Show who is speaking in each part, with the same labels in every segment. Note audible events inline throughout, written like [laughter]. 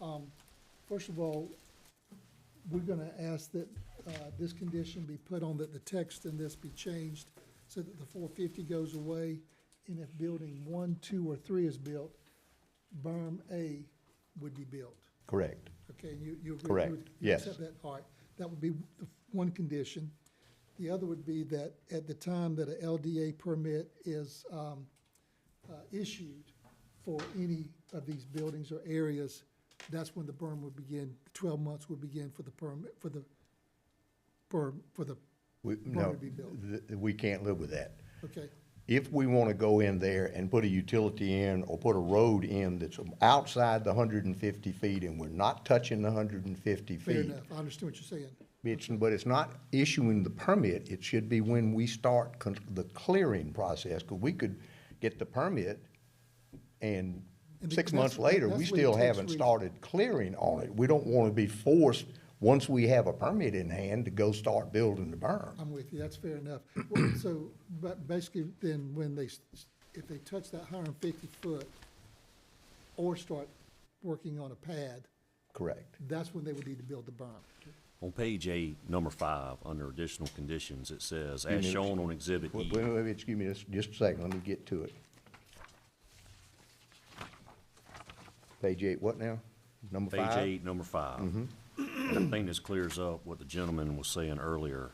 Speaker 1: um, first of all, we're gonna ask that, uh, this condition be put on that the text in this be changed so that the four fifty goes away, and if building one, two, or three is built, berm A would be built.
Speaker 2: Correct.
Speaker 1: Okay, you, you agree?
Speaker 2: Correct,
Speaker 1: You would- you
Speaker 2: yes.
Speaker 1: accept that, all right. That would be the one condition. The other would be that at the time that a LDA permit is, um, uh, issued for any of these buildings or areas, that's when the berm would begin, twelve months would begin for the permit, for the berm, for the,
Speaker 2: We,
Speaker 1: Probably
Speaker 2: no,
Speaker 1: be built.
Speaker 2: th- th- we can't live with that.
Speaker 1: okay,
Speaker 2: If we want to go in there and put a utility in or put a road in that's outside the hundred and fifty feet and we're not touching the hundred and fifty
Speaker 1: fair
Speaker 2: feet.
Speaker 1: enough. I understand what you're saying.
Speaker 2: It's, but it's not issuing the permit. It should be when we start con- the clearing process, because we could get the permit and
Speaker 1: And
Speaker 2: six
Speaker 1: that's-
Speaker 2: months later, we
Speaker 1: that's when it
Speaker 2: still
Speaker 1: takes
Speaker 2: haven't
Speaker 1: reason.
Speaker 2: started clearing on it. We don't want to be forced, once we have a permit in hand, to go start building the berm.
Speaker 1: I'm with you, that's fair enough. Well, So, but basically, then when they, s- if they touch that hundred and fifty foot or start working on a pad,
Speaker 2: Correct.
Speaker 1: that's when they would need to build the berm.
Speaker 3: On page eight, number five, under additional conditions, it says, as
Speaker 2: minutes.
Speaker 3: shown on exhibit
Speaker 2: Wait,
Speaker 3: E.
Speaker 2: wait, wait, excuse me, just, just a second, let me get to it. Page eight, what now? Number
Speaker 3: Page
Speaker 2: five?
Speaker 3: eight, number five. And I think this clears up what the gentleman was saying earlier,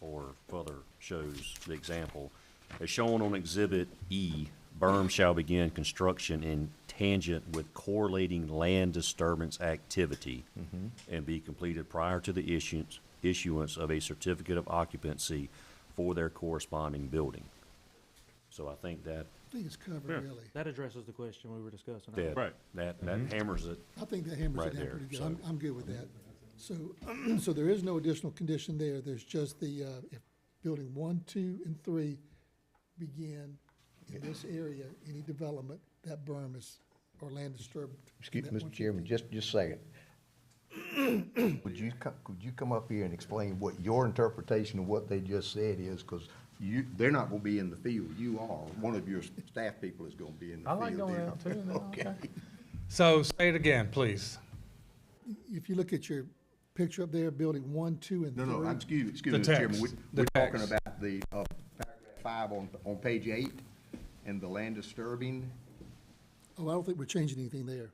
Speaker 3: or further shows the example. As shown on exhibit E, berm shall begin construction in tangent with correlating land disturbance activity and be completed prior to the issuance, issuance of a certificate of occupancy for their corresponding building. So I think that
Speaker 1: I think it's covered, really.
Speaker 4: That addresses the question we were discussing.
Speaker 3: that, that, that hammers it.
Speaker 1: I think that hammers
Speaker 3: Right
Speaker 1: it down
Speaker 3: there,
Speaker 1: pretty good.
Speaker 3: so-
Speaker 1: I'm, I'm good with that. So, [clears throat] so there is no additional condition there. There's just the, uh, if building one, two, and three begin in this area, any development, that berm is, or land disturbed.
Speaker 2: Excuse
Speaker 1: that
Speaker 2: me, Mr.
Speaker 1: 150.
Speaker 2: Chairman, just, just a second. [coughs] Would you, co- could you come up here and explain what your interpretation of what they just said is? Because you, they're not gonna be in the field, you are, one of your staff people is gonna be in the
Speaker 5: I
Speaker 2: field.
Speaker 5: like going
Speaker 2: then.
Speaker 5: out too, man, okay.
Speaker 6: So say it again, please.
Speaker 1: If you look at your picture up there, building one, two, and
Speaker 2: No,
Speaker 1: three.
Speaker 2: no, I'm- excuse, me, excuse me,
Speaker 6: The
Speaker 2: Mr. Chairman,
Speaker 6: text,
Speaker 2: we,
Speaker 6: the
Speaker 2: we're talking
Speaker 6: text.
Speaker 2: about the, uh, paragraph five on, on page eight, and the land disturbing.
Speaker 1: Oh, I don't think we're changing anything there.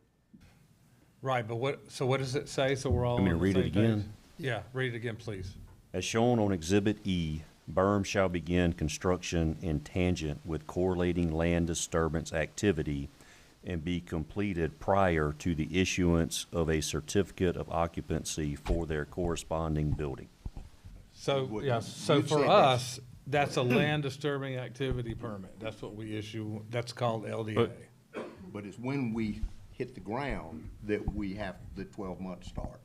Speaker 6: Right, but what, so what does it say? So we're all
Speaker 3: me
Speaker 6: on
Speaker 3: to
Speaker 6: the
Speaker 3: read it
Speaker 6: same page?
Speaker 3: again?
Speaker 6: Yeah, read it again, please.
Speaker 3: As shown on Exhibit E, berm shall begin construction in tangent with correlating land disturbance activity and be completed prior to the issuance of a certificate of occupancy for their corresponding building.
Speaker 6: So,
Speaker 2: What-
Speaker 6: yeah, so
Speaker 2: you've said
Speaker 6: for
Speaker 2: that's-
Speaker 6: us, that's a land disturbing activity permit. That's what we issue, that's called LDA.
Speaker 3: But-
Speaker 2: But it's when we hit the ground that we have, the twelve month starts.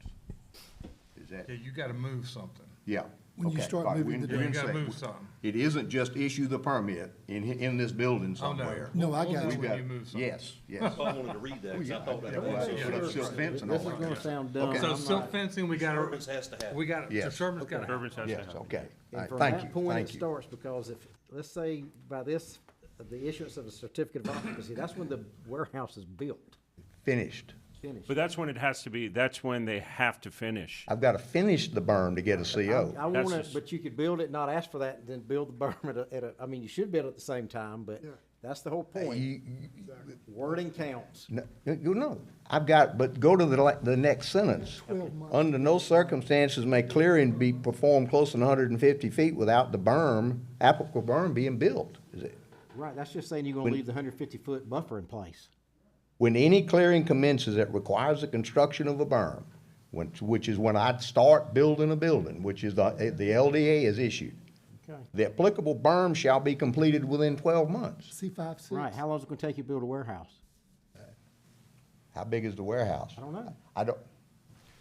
Speaker 2: Is that?
Speaker 6: Yeah, you gotta move something.
Speaker 2: Yeah.
Speaker 1: When you
Speaker 2: okay,
Speaker 1: start
Speaker 2: right,
Speaker 1: moving
Speaker 2: we're in-
Speaker 1: the
Speaker 2: we're in
Speaker 6: dirt. You gotta
Speaker 2: sec-
Speaker 6: move something.
Speaker 2: It isn't just issue the permit in, hi- in this building
Speaker 6: Oh, no.
Speaker 2: somewhere.
Speaker 1: No, I
Speaker 6: We'll
Speaker 1: got
Speaker 6: do
Speaker 1: you.
Speaker 6: it
Speaker 2: We've
Speaker 6: when
Speaker 2: got-
Speaker 6: you move something.
Speaker 2: Yes,
Speaker 6: [laughs]
Speaker 2: yes.
Speaker 3: Oh, I wanted to read that, because I thought that
Speaker 2: Put up silk fence and all
Speaker 7: This is
Speaker 2: that.
Speaker 7: gonna sound dumb.
Speaker 2: Okay.
Speaker 6: So
Speaker 7: I'm
Speaker 6: silk
Speaker 7: not-
Speaker 6: fencing, we
Speaker 3: Disturbance
Speaker 6: gotta,
Speaker 3: has to happen.
Speaker 6: we gotta,
Speaker 2: Yes.
Speaker 6: disturbance gotta happen.
Speaker 2: Yes, okay. All
Speaker 7: And
Speaker 2: right,
Speaker 7: from
Speaker 2: Thank
Speaker 7: that
Speaker 2: you,
Speaker 7: point, it
Speaker 2: thank you.
Speaker 7: starts, because if, let's say by this, the issuance of a certificate of occupancy, that's when the warehouse is built,
Speaker 2: Finished.
Speaker 7: finished.
Speaker 8: But that's when it has to be, that's when they have to finish.
Speaker 2: I've got to finish the burn to get a
Speaker 7: I
Speaker 2: CO.
Speaker 7: want
Speaker 8: That's
Speaker 7: it,
Speaker 8: just-
Speaker 7: but you could build it, not ask for that, and then build the berm at a, at a, I mean, you should build it at the same time, but that's the whole point.
Speaker 2: You- you-
Speaker 7: Wording counts.
Speaker 2: No, you know, I've got, but go to the, la- the next sentence. Under no circumstances may clearing be performed close to hundred and fifty feet without the berm, applicable berm being built. Is it?
Speaker 7: Right, that's just saying you're gonna leave the hundred fifty foot buffer in place.
Speaker 2: When any clearing commences that requires the construction of a berm, which, which is when I'd start building a building, which is the, the LDA is issued.
Speaker 7: Okay.
Speaker 2: The applicable berm shall be completed within twelve months.
Speaker 1: C five, six.
Speaker 7: Right, how long is it gonna take you to build a warehouse?
Speaker 2: How big is the warehouse?
Speaker 7: I don't know.
Speaker 2: I don't,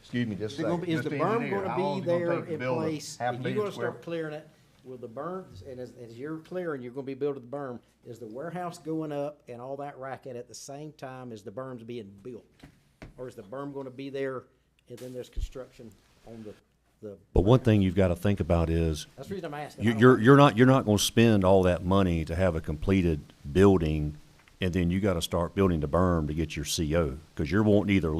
Speaker 2: excuse me, just a
Speaker 7: Is it gonna
Speaker 2: second.
Speaker 7: be- is the
Speaker 2: Mr.
Speaker 7: berm
Speaker 2: Engineer, how long is
Speaker 7: gonna be
Speaker 2: it gonna
Speaker 7: there
Speaker 2: take to
Speaker 7: in
Speaker 2: build a
Speaker 7: place?
Speaker 2: half
Speaker 7: If you're
Speaker 2: million
Speaker 7: gonna
Speaker 2: square
Speaker 7: start clearing it, will the berm, and as, as you're clearing, you're gonna be building the berm, is the warehouse going up and all that racket at the same time as the berm's being built? Or is the berm gonna be there and then there's construction on the, the,
Speaker 3: But one thing you've got to think about is,
Speaker 7: that's the reason I'm asking. I
Speaker 3: you-
Speaker 7: don't
Speaker 3: you're,
Speaker 7: know.
Speaker 3: you're not, you're not going to spend all that money to have a completed building, and then you got to start building the berm to get your CO, because you're wanting either